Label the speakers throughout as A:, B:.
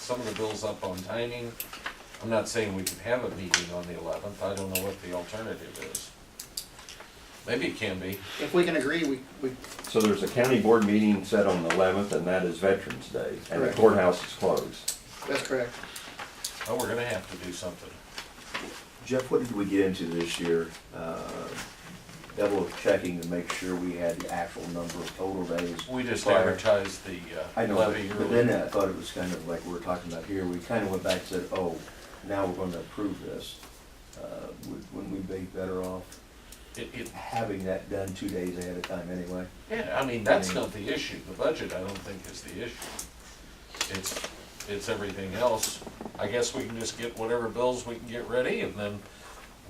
A: some of the bills up on timing. I'm not saying we can have a meeting on the eleventh, I don't know what the alternative is. Maybe it can be,
B: If we can agree, we, we,
C: So there's a county board meeting set on the eleventh, and that is Veterans Day, and the
B: Correct.
C: courthouse is closed.
B: that's correct.
A: oh, we're gonna have to do something.
D: Jeff, what did we get into this year? Uh, Double checking to make sure we had the actual number of total days.
A: We just
D: prior.
A: advertised the uh,
D: I know,
A: levy
D: but- but then
A: early.
D: I thought it was kind of like we're talking about here, we kind of went back and said, oh, now we're gonna approve this. Uh, would- Wouldn't we be better off
A: It, it,
D: having that done two days ahead of time anyway?
A: yeah, I mean, that's not the issue, the budget, I don't think is the issue. It's, it's everything else. I guess we can just get whatever bills we can get ready and then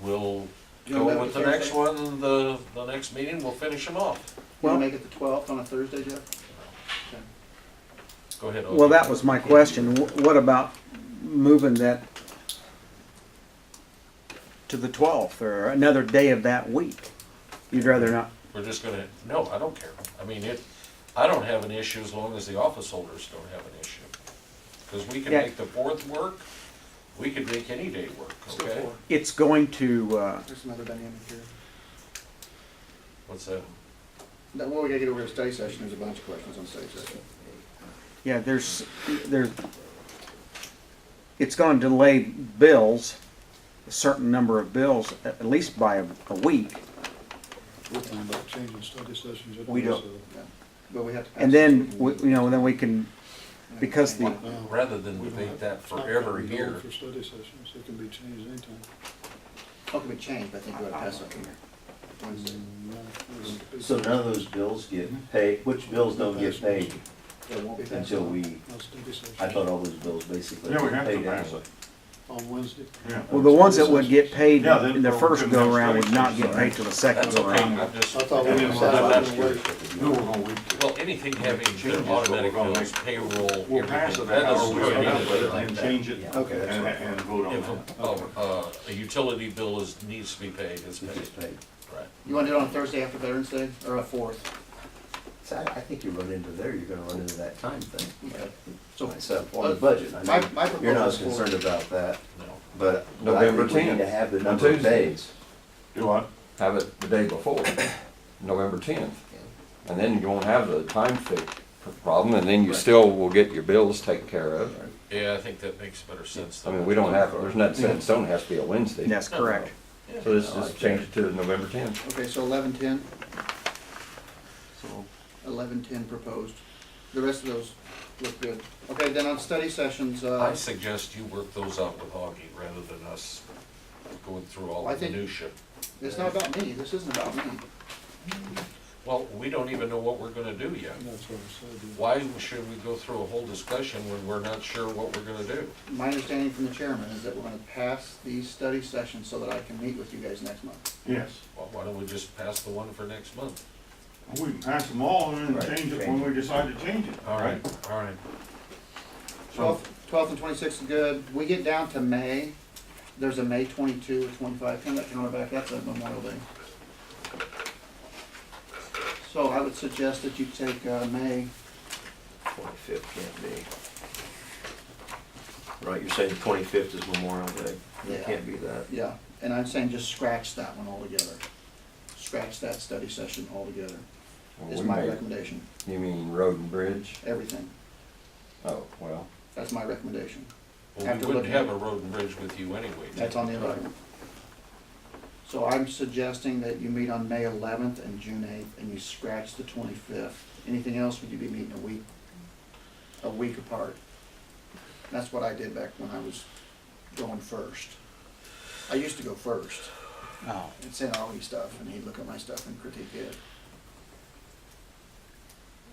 A: we'll
B: You
A: go
B: wanna make
A: with
B: it
A: the next
B: Thursday?
A: one, the, the next meeting, we'll finish them off.
B: We'll make it the twelfth on a Thursday, Jeff?
A: Go ahead. Oki.
E: Well, that was my question. Wh- What about moving that to the 12th or another day of that week? You'd rather not,
A: We're just gonna, no, I don't care. I mean, it, I don't have an issue as long as the office holders don't have an issue. Cause we can
E: Yeah.
A: make the fourth work, we could make any day work,
B: Let's go
A: okay?
B: forward.
E: it's going to, uh,
B: There's another dynamic here.
A: What's that?
B: Now, what we gotta get over to study session, there's a bunch of questions on study session.
E: yeah, there's, there's, it's going to delay bills, a certain number of bills, a- at least by a, a week.
F: We're talking about changing study sessions.
D: We don't-
B: But we have to. pass
E: And
B: it.
E: then, we- you know, then we can, because the,
A: Rather than debate that forever here,
F: For study sessions, it can be changed anytime.
B: Oh, can we change, but I think we ought to pass it here. Wednesday.
F: Mm,
D: So none of those bills get paid, which Mm-hmm. bills don't get paid
B: It won't be passed.
D: until we,
F: Not study session.
D: I thought all those bills basically.
G: Yeah, we
D: were
G: have to
D: paid
G: pass
D: anyway.
G: it,
F: On Wednesday.
G: yeah.
E: well, the ones that would get paid
G: Yeah, then-
E: in the first go-around would not get paid till the second
A: that's okay,
E: go-around.
A: I'm just,
F: I thought we
G: Yeah,
F: decided
G: well,
F: on
A: that's
F: the way.
G: No, we're gonna, we-
A: well, anything having
G: Changes,
A: the
G: but we're
A: automatic
G: gonna
A: bills,
G: make-
A: payroll,
G: we'll pass
A: everything,
G: it
A: that
G: out,
A: doesn't
G: or
A: really
G: we'll
A: need
G: up with
A: to
G: it
A: be
G: and
A: like that.
G: change it
D: Yeah,
G: and,
D: okay, that's right.
G: and vote on
A: If,
G: that.
A: a- oh, uh, a utility bill is, needs to be paid, it's
D: It
A: paid,
D: gets paid.
A: right?
B: You wanna do it on Thursday after Veterans Day, or a fourth?
D: So I, I think you run into there, you're gonna run into that time thing.
B: So, uh,
D: So on the budget, I
B: My-
D: mean,
B: my
D: you're not as
B: proposal is-
D: concerned about that,
A: No.
D: but but I
C: November
D: think we need to
C: 10th,
D: have the
C: on
D: number of
C: Tuesday.
D: days.
G: Do what?
C: Have it the day before, November tenth. And then you won't have the time fix problem, and then you still will get your bills taken care of.
A: Yeah, I think that makes better sense.
C: I
A: than-
C: mean, we don't have, there's nothing set in stone, it has to be a Wednesday.
E: That's correct.
A: Yeah.
C: So this is changed to November tenth.
B: okay, so eleven ten,
C: So
B: eleven ten proposed. The rest of those look good. Okay, then on study sessions,
A: I
B: uh,
A: suggest you work those out with Augie rather than us going through all
B: I
A: the
B: think-
A: minutia.
B: it's not about me, this isn't about me.
A: Well, we don't even know what we're gonna do yet.
F: That's what I said.
A: Why should we go through a whole discussion when we're not sure what we're gonna do?
B: My understanding from the chairman is that we're gonna pass these study sessions so that I can meet with you guys next month.
G: Yes,
A: Well, why don't we just pass the one for next month?
G: we can pass them all and then
D: Right,
G: change it
D: change
G: when we decide to change it.
A: All right, all right.
G: So,
B: Twelfth, twelfth and twenty-sixth is good. We get down to May, there's a May twenty-two or twenty-five, turn that counter back, that's a Memorial Day. So I would suggest that you take, uh, May,
D: Twenty-fifth can't be. Right, you're saying the twenty-fifth is Memorial Day,
B: Yeah.
D: it can't be that.
B: yeah, and I'm saying just scratch that one altogether. Scratch that study session altogether, is
C: we
B: my
C: may-
B: recommendation,
C: You mean road and bridge?
B: everything,
C: Oh, well,
B: that's my recommendation.
A: Well, we
B: After
A: wouldn't
B: looking-
A: have a road and bridge with you anyway.
B: That's on the eleventh. So I'm suggesting that you meet on May eleventh and June eighth, and you scratch the twenty-fifth. Anything else, would you be meeting a week, a week apart? That's what I did back when I was going first. I used to go first
E: Oh.
B: and send Augie stuff, and he'd look at my stuff and critique it.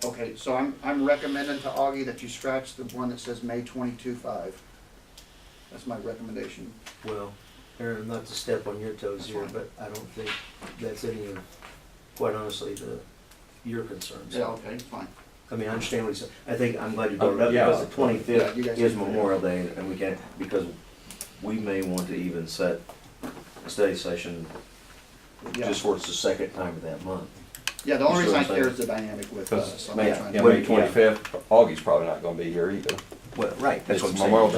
B: Okay, so I'm, I'm recommending to Augie that you scratch the one that says May twenty-two five. That's my recommendation.
H: Well, Aaron, not to step on your toes here, but I don't think that's any of, quite honestly, the, your concerns.
B: Yeah, okay, fine.
H: I mean, I understand what he's, I think, I'm glad you brought it up,
C: Yeah.
H: because
D: Because
H: it-
D: the
B: Yeah,
D: twenty-fifth
B: you guys-
D: is Memorial Day, and we can't, because we may want to even set a study session
B: Yeah,
D: just for it's the second time of that month.
B: yeah, the only
D: You
B: reason
D: see what
B: I care
D: I'm saying?
B: is the dynamic with us.
C: because
B: I'm not
C: May,
B: trying
C: yeah,
B: to-
C: May twenty-fifth, Augie's probably not gonna be here either.
I: Well, right, that's what I'm
D: It's
I: saying.
D: Memorial